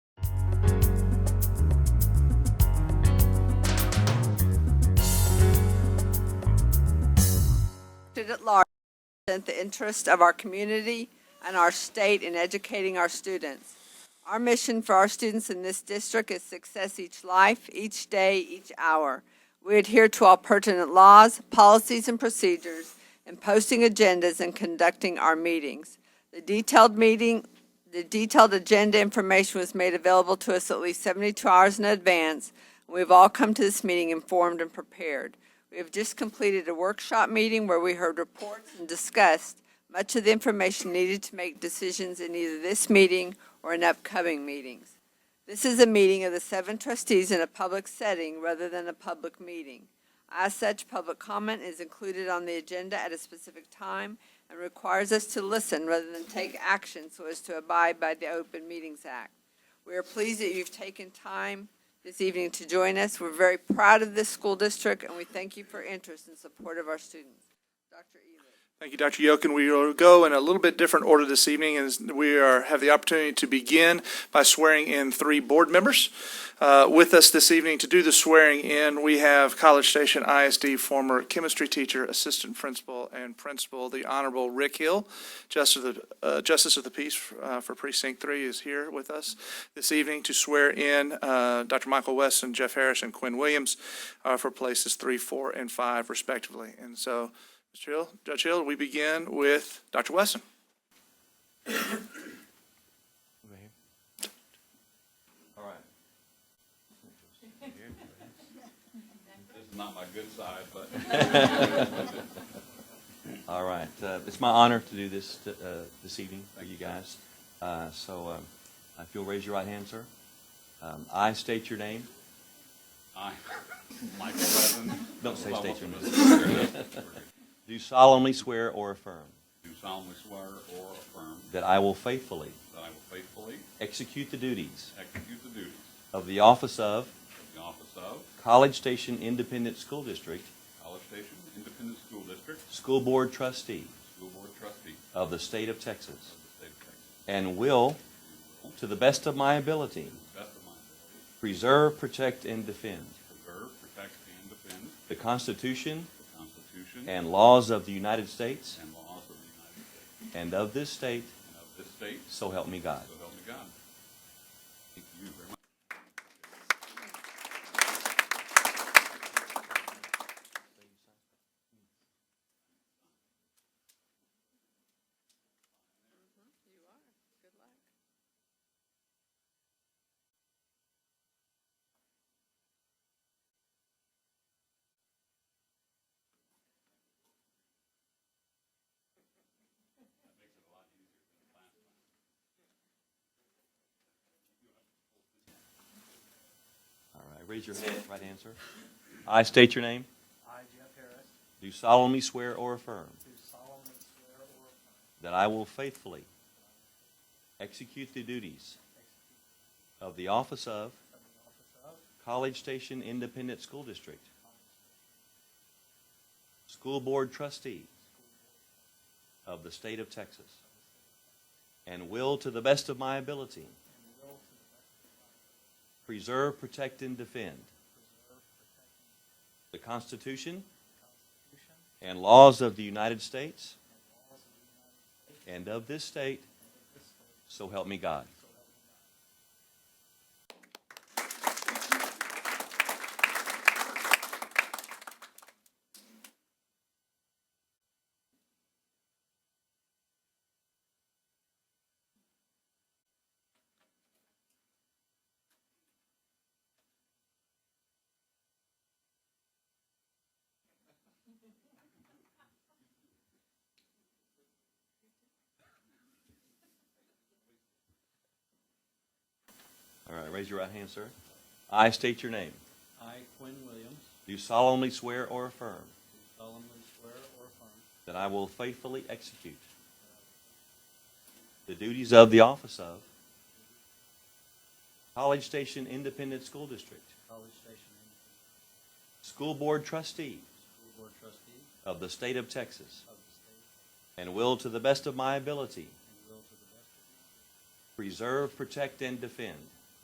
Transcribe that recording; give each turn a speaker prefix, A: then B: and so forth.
A: at large represent the interests of our community and our state in educating our students. Our mission for our students in this district is success each life, each day, each hour. We adhere to all pertinent laws, policies, and procedures in posting agendas and conducting our meetings. The detailed meeting, the detailed agenda information was made available to us at least 72 hours in advance. and We've all come to this meeting informed and prepared. We have just completed a workshop meeting where we heard reports and discussed much of the information needed to make decisions in either this meeting or in upcoming meetings. This is a meeting of the seven trustees in a public setting rather than a public meeting. As such, public comment is included on the agenda at a specific time and requires us to listen rather than take action so as to abide by the Open Meetings Act. We are pleased that you've taken time this evening to join us. We're very proud of this school district, and we thank you for interest and support of our students. Dr. Ely.
B: Thank you, Dr. Yokin. We will go in a little bit different order this evening, as we are, have the opportunity to begin by swearing in three board members. Uh, With us this evening to do the swearing in, we have College Station ISD former chemistry teacher, assistant principal, and principal, the Honorable Rick Hill, Justice of the, uh, Justice of the Peace uh, for Precinct Three is here with us this evening to swear in uh, Dr. Michael Weston, Jeff Harris, and Quinn Williams uh, for places three, four, and five respectively. And so Mr. Hill, Judge Hill, we begin with Dr. Wesson.
C: All right. This is not my good side, but. All right, uh, it's my honor to do this, t- uh, this evening for you guys. Uh, so, um, if you'll raise your right hand, sir. Um, I state your name.
D: I, Michael Levin.
C: Don't say state your name.
D: name.
C: Do solemnly swear or affirm
D: Do solemnly swear or affirm
C: that I will faithfully
D: that I will faithfully
C: execute the duties
D: execute the duties
C: of the office of
D: of the office of
C: College Station Independent School District
D: College Station Independent School District
C: School Board Trustee
D: School Board Trustee
C: of the State of
D: of
C: Texas
D: the State of Texas.
C: and will,
D: and will,
C: to the best of my ability,
D: To the best of my ability,
C: preserve, protect, and defend
D: preserve, protect, and defend
C: the Constitution
D: the Constitution
C: and laws of the United States
D: and laws of the United States
C: and of this state,
D: and of this state,
C: so help me God.
D: so help me God. Thank you very much.
C: All right, raise your hand, right hand, sir. I state your name.
E: I, Jeff Harris,
C: Do solemnly swear or affirm
E: do solemnly swear or affirm
C: that I will faithfully execute the duties of the office of
E: that the office of
C: College Station Independent School District School Board Trustee of the State of Texas and will, to the best of my ability,
E: and will to the best of my ability
C: preserve, protect, and defend
E: preserve, protect, and
C: the Constitution
E: defend the Constitution
C: and laws of the United States
E: and laws of the United States
C: and of this
E: and
C: state,
E: of this state,
C: so help me
E: so
C: God.
E: help me God.
C: All right, raise your right hand, sir. I state your name.
F: I, Quinn Williams,
C: Do solemnly swear or affirm
F: do solemnly swear or affirm
C: that I will faithfully execute the duties of the office of College Station Independent School District
F: College Station Independent
C: School Board Trustee
F: School Board trustee
C: of the State of Texas
F: of the state
C: and will, to the best of my ability,
F: and will to the best of my ability
C: preserve, protect, and defend